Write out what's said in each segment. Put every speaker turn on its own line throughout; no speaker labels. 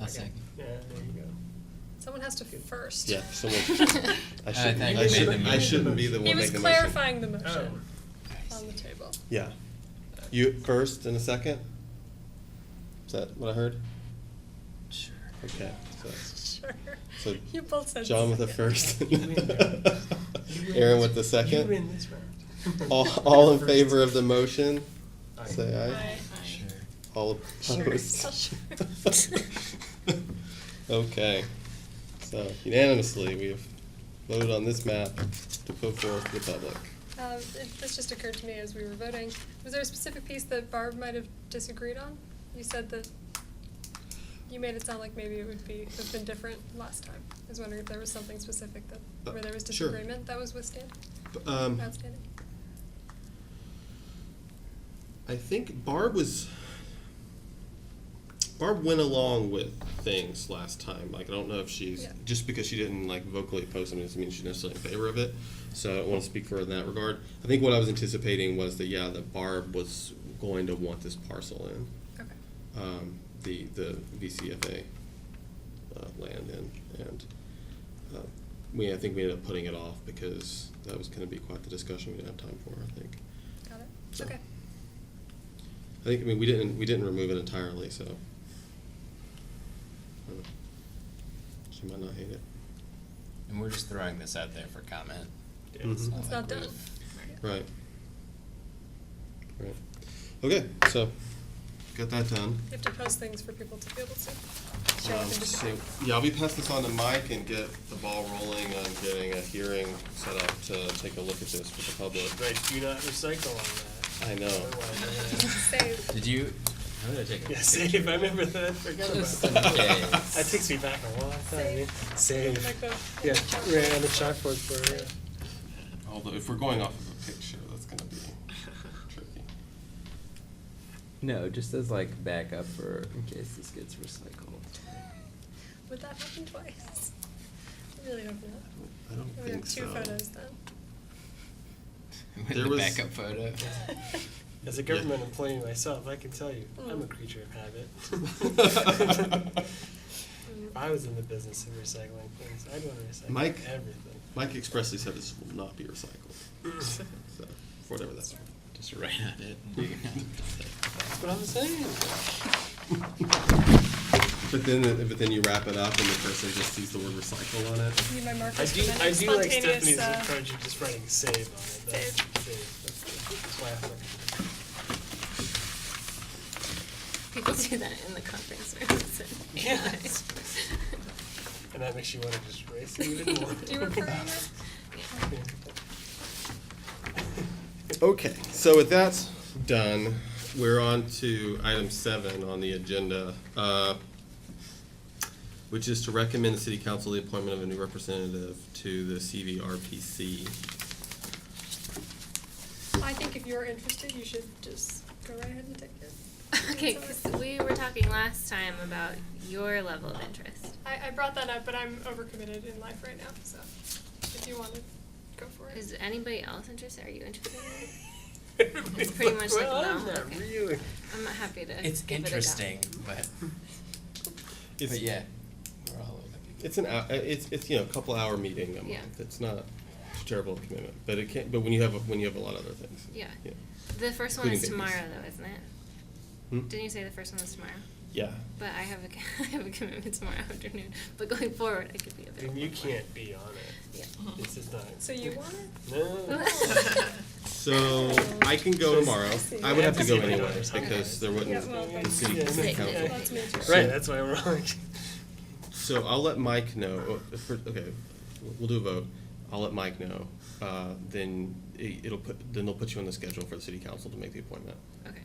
I'll second.
Yeah, there you go.
Someone has to first.
Yeah, someone- I shouldn't,
think
I
you made
shouldn't,
the
I
motion.
shouldn't be the
He
one making the
was
motion.
clarifying the
Oh,
motion on the table.
Yeah. You first and a second? Is that what I heard?
Sure.
Okay, so
Sure.
So,
You both said.
John with the
second.
first.
You win. You win
Aaron
this-
with the second.
You win this round.
All, all in
First.
favor of the motion,
Aye.
say aye.
Aye.
Sure.
All
Sure,
opposed?
so sure.
Okay, so unanimously, we have voted on this map to put forth to the public.
Um, it- This just occurred to me as we were voting. Was there a specific piece that Barb might have disagreed on? You said that, you made it sound like maybe it would be, would have been different last time. I was wondering if there was something specific that, where there was
Uh, sure.
disagreement that was withstand,
Um,
outstanding?
I think Barb was. Barb went along with things last time. Like I don't know if she's
Yeah.
just because she didn't like vocally oppose something doesn't mean she's necessarily in favor of it. So I don't want to speak for her in that regard. I think what I was anticipating was that yeah, that Barb was going to want this parcel in
Okay.
um, the the VCFA uh, land in, and uh, we I think we ended up putting it off because that was going to be quite the discussion we didn't have time for. I think.
Got it?
So-
Okay.
I think, I mean, we didn't, we didn't remove it entirely, so. Uh, She might not hate it.
And we're just throwing this out there for comment.
Yeah.
Mhm.
It's not
like
done.
we've-
Right. Right. Okay, so, got that done.
You have to post things for people to be able to show up
Um,
and just.
so- Yeah, I'll be passing this on to Mike and get the ball rolling on getting a hearing set up to take a look at this with the public.
Right, do not recycle on that.
I know.
Otherwise, we're gonna-
Save.
Did you, how did I take a
Yeah,
picture?
save. I remember that. I forgot about
Just
that.
in case.
That takes me back a long time. Save.
Like the-
Yeah, right on the chalkboard for yeah.
Although, if we're going off of a picture, that's gonna be tricky.
No, just as like backup for in case this gets recycled.
Would that happen twice? I really hope not.
I don't
We
think
have
so.
two photos then.
With
There
the
was-
backup photo.
As a
Yeah.
government employee myself, I can tell you, I'm a
Mm.
creature of habit. if I was in the business of recycling things, I'd want to recycle
Mike?
everything.
Mike expressly said this will not be recycled, so, for whatever that's worth.
Just right on it.
That's what I'm saying.
But then, but then you wrap it up and the person just sees the word recycle on it.
Need my
I
markers
do,
for that
I do like
spontaneous,
Stephanie's
uh,
approach of just writing save on it. That's,
save.
save. That's, good. that's why I thought-
People do that in the conference rooms.
Yes. And that makes you want to just race it even more.
Do you refer on that?
Okay, so with that done, we're on to item seven on the agenda, uh, which is to recommend the city council the appointment of a new representative to the CVRPC.
I think if you're interested, you should just go right ahead and take it.
Okay,
It's
'cause
all right.
we were talking last time about your level of interest.
I, I brought that up, but I'm overcommitted in life right now, so if you want to go for it.
Is anybody else interested? Are you interested? in it?
It's
pretty much like,
well, I'm
no,
not
okay.
really.
I'm not happy to.
It's
give it a go.
interesting, but,
It's-
but yeah, we're all over the
It's an, hou- uh, it's, it's, you know, a couple hour meeting a
Yeah.
month. It's not a terrible commitment, but it can, but when you have, a- when you have a lot of other things.
Yeah. The first one
Including
is
babies.
tomorrow, though, isn't it?
Hmm?
Didn't you say the first one was tomorrow?
Yeah.
But I have a, I have a commitment tomorrow afternoon. But going forward, I could be
I mean,
available.
you
for it.
can't be on it.
Yeah.
This is not.
So you want it?
No.
So I can go tomorrow. I would have to go
Yeah.
anyway because there
Yeah,
wouldn't,
well,
the city
Yeah,
council.
yeah.
that's me too.
Right, that's why we're on. it.
So I'll let Mike know, oh, for- okay, we'll do a vote. I'll let Mike know. Uh, Then it- it'll put, then they'll put you on the schedule for the city council to make the appointment.
Okay.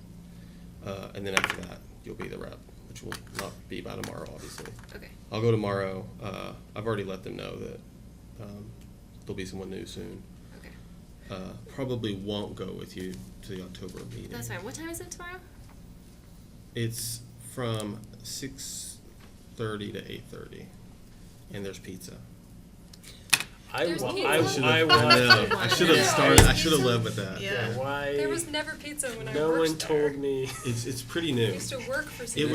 Uh, And then after that, you'll be the rep, which will not be by tomorrow, obviously.
Okay.
I'll go tomorrow. Uh, I've already let them know that um, there'll be someone new soon.
Okay.
Uh, Probably won't go with you to the October meeting.
That's fine. What time is it tomorrow?
It's from six thirty to eight thirty, and there's pizza.
I
There's
wa-
pizza.
I,
I should've-
I
I
want.
know. I should have started. I should have led with that.
Yeah, why?
There was never pizza when I
No
worked
one
there.
told me.
It's it's pretty new.
I used to work for.
It